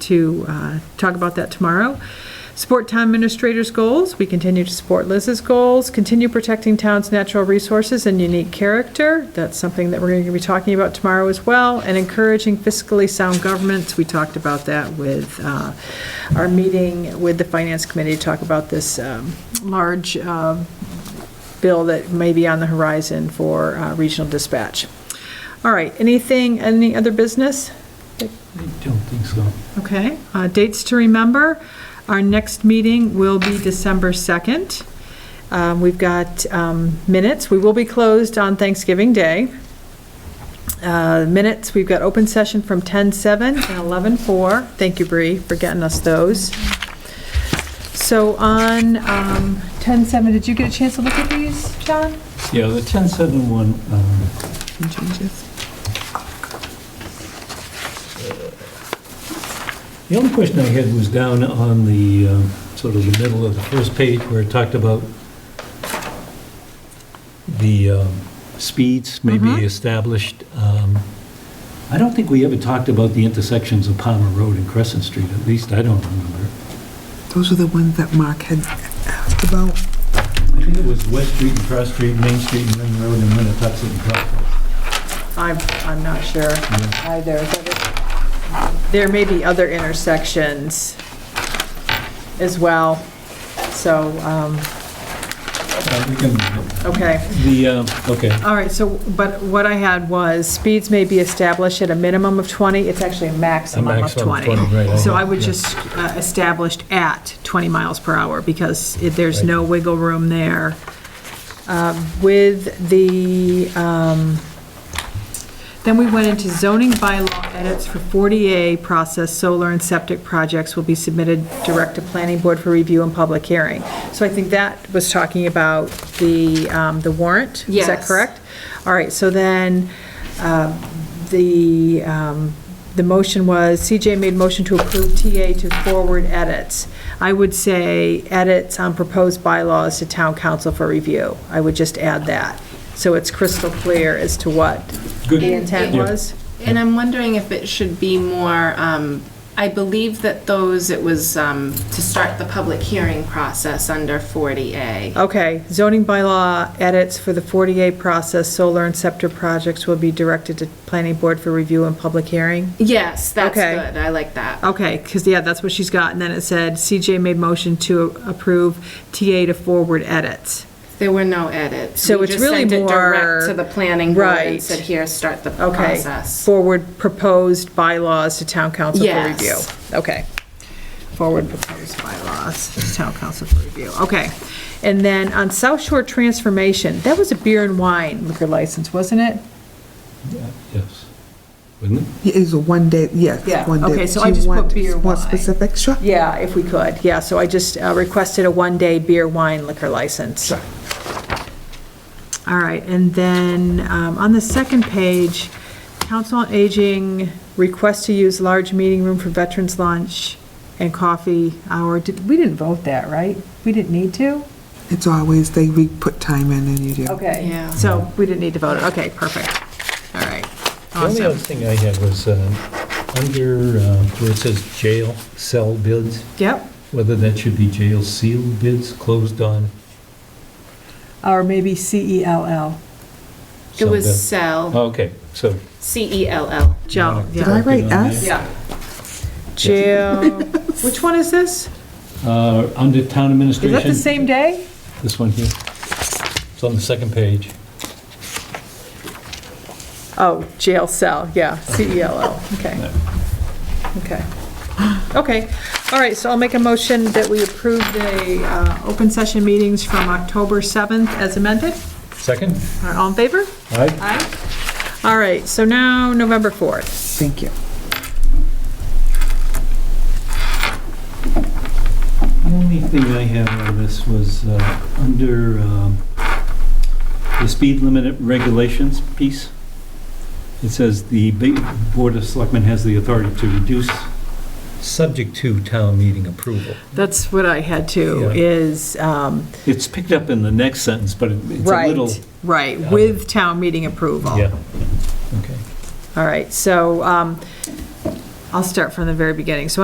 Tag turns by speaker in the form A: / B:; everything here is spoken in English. A: to uh, talk about that tomorrow. Support town administrators' goals. We continue to support Liz's goals. Continue protecting town's natural resources and unique character. That's something that we're going to be talking about tomorrow as well. And encouraging fiscally sound governments. We talked about that with uh, our meeting with the Finance Committee to talk about this um, large um, bill that may be on the horizon for uh, regional dispatch. All right, anything, any other business?
B: I don't think so.
A: Okay, uh, dates to remember, our next meeting will be December 2nd. Um, We've got um, minutes, we will be closed on Thanksgiving Day. Uh, Minutes, we've got open session from 10:07 and 11:04. Thank you, Bree, for getting us those. So on um, 10:07, did you get a chance to look at these, John?
B: Yeah, the 10-7 one, um,
A: Changes.
B: the only question I had was down on the, um, sort of the middle of the first page where it talked about the um, speeds may be
A: Mhm.
B: established. Um, I don't think we ever talked about the intersections of Palmer Road and Crescent Street, at least I don't remember.
C: Those are the ones that Mark had asked about.
B: I think it was West Street and Cross Street, Main Street and Ring Road and Winnetoxet and Cross.
A: I'm, I'm not sure either. Is that it? There may be other intersections as well, so, um,
B: Uh, we can-
A: okay.
B: The, uh, okay,
A: All right, so, but what I had was, speeds may be established at a minimum of 20, it's actually a
B: a
A: maximum of
B: maximum of
A: 20.
B: 20, right.
A: So I would
B: yeah.
A: just uh, established at 20 miles per hour, because it- there's
B: Right.
A: no wiggle room there. Um, With the, um, then we went into zoning bylaw edits for 40A process, solar and septic projects will be submitted direct to planning board for review and public hearing. So I think that was talking about the, um, the warrant, is that
D: Yes.
A: correct? All right, so then, um, the, um, the motion was, CJ made motion to approve TA to forward edits. I would say edits on proposed bylaws to town council for review. I would just add that, so it's crystal clear as to what
B: good.
A: the intent
B: Yeah.
A: was.
D: And I'm wondering if it should be more, um, I believe that those, it was um, to start the public hearing process under 40A.
A: Okay, zoning bylaw edits for the 48 process, solar and scepter projects will be directed to planning board for review and public hearing?
D: Yes, that's
A: Okay.
D: good, I like that.
A: Okay, because, yeah, that's what she's got, and then it said, CJ made motion to approve TA to forward edits.
D: There were no edits.
A: So
D: We
A: it's
D: just
A: really
D: sent it
A: more-
D: direct to the planning board
A: Right.
D: and said, here, start the
A: Okay,
D: process.
A: forward proposed bylaws to town council for
D: Yes.
A: review. Okay. Forward proposed bylaws to town council for review, okay. And then on South Shore Transformation, that was a beer and wine liquor license, wasn't it?
B: Yes. Wouldn't it?
C: It is a one day, yes,
A: Yeah,
C: one day.
A: okay, so
C: Do
A: I
C: you
A: just put
C: want
A: beer
C: More
A: wine.
C: specific, sure.
A: Yeah, if we could, yeah, so I just uh, requested a one-day beer, wine, liquor license. All right, and then um, on the second page, Council on Aging request to use large meeting room for veterans lunch and coffee hour. Did- We didn't vote that, right? We didn't need to?
C: It's always, they re put time in and you do.
A: Okay,
D: Yeah.
A: so we didn't need to vote it, okay, perfect, all right,
B: The only other
A: awesome.
B: thing I had was, um, under, um, where it says jail cell bids,
A: Yep,
B: whether that should be jail seal bids, closed on.
A: or maybe E C-E-L-L,
D: It
B: cell
D: was
B: bid.
D: cell, E
B: Okay, so.
D: C-E-l-l.
A: Joe,
B: Wanna
C: Did
A: yeah.
C: I
B: correct it
C: write
B: on
C: S?
B: that?
A: Yeah. Jail, which one is this?
B: Uh, under town
A: Is
B: administration.
A: that the same day?
B: This one here. It's on the second page.
A: Oh, jail cell, yeah, C-E-L-L, okay. Okay. Okay, all right, so I'll make a motion that we approve the uh, open session meetings from October 7th as amended.
B: Second?
A: All right, All in favor?
B: All right.
A: Aye. All right, so now November 4th.
C: Thank you.
B: The only thing I have on this was uh, under um, the speed limit regulations piece. It says the ba- Board of Selectmen has the authority to reduce, subject to town meeting approval.
A: That's what I had too,
B: Yeah.
A: is, um,
B: It's picked up in the next sentence, but it- it's a
A: right,
B: little.
A: right,
B: Yeah.
A: with town meeting approval.
B: Yeah, okay.
A: All right, so um, I'll start from the very beginning. So